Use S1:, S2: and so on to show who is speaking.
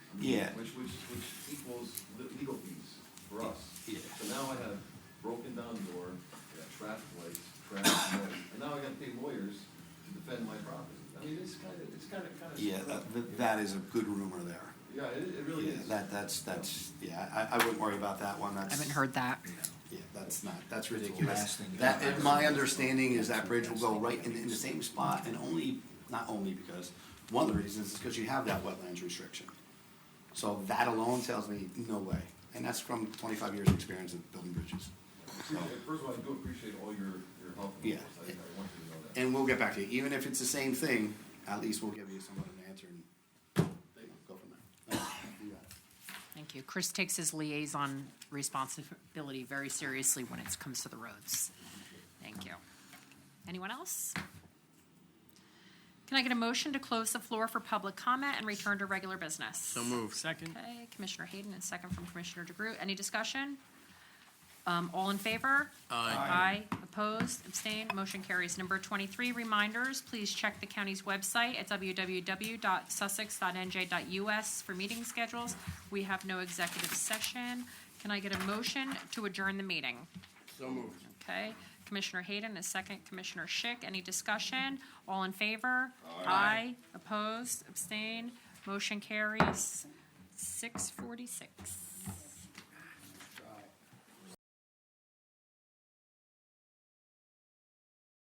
S1: Yeah.
S2: Which, which, which equals le- legal fees for us.
S1: Yeah.
S2: So now I have broken down door, I got traffic lights, traffic noise, and now I gotta pay lawyers to defend my property. I mean, it's kinda, it's kinda, kinda.
S1: Yeah, that- that, that is a good rumor there.
S2: Yeah, it, it really
S1: Yeah,
S2: is.
S1: That, that's, that's, yeah, I, I wouldn't worry about that one,
S3: I
S1: that's.
S3: haven't heard that.
S1: Yeah, that's not, that's
S4: Last
S1: ridiculous.
S4: thing you
S1: That,
S4: have.
S1: and my understanding is that bridge will go right in, in the same spot, and only, not only because, one of the reasons is because you have that wetlands restriction. So that alone tells me, no way, and that's from twenty-five years' of experience of building bridges.
S2: Appreciate- First of all, I do appreciate all your, your help. and
S1: Yeah.
S2: advice. I, I want you to know that.
S1: And we'll get back to you, even if it's the same thing, at least we'll give you somewhat of an answer and you know, go from there. You got it.
S3: Thank you. Chris takes his liaison responsibility very seriously when it comes to the roads. Thank you. Anyone else? Can I get a motion to close the floor for public comment and return to regular business? So
S5: move. Second.
S3: Okay, Commissioner Hayden and second from Commissioner DeGroot. Any discussion? Um, all in favor? Aye. Aye, opposed, abstained, motion carries. Number twenty-three, reminders, please check the county's website at www.sussex.nj.us for meeting schedules. We have no executive session. Can I get a motion to adjourn the meeting?
S5: So moved.
S3: Okay, Commissioner Hayden, a second, Commissioner Schick, any discussion? All in favor? Aye. opposed, abstained, motion carries. Six forty-six.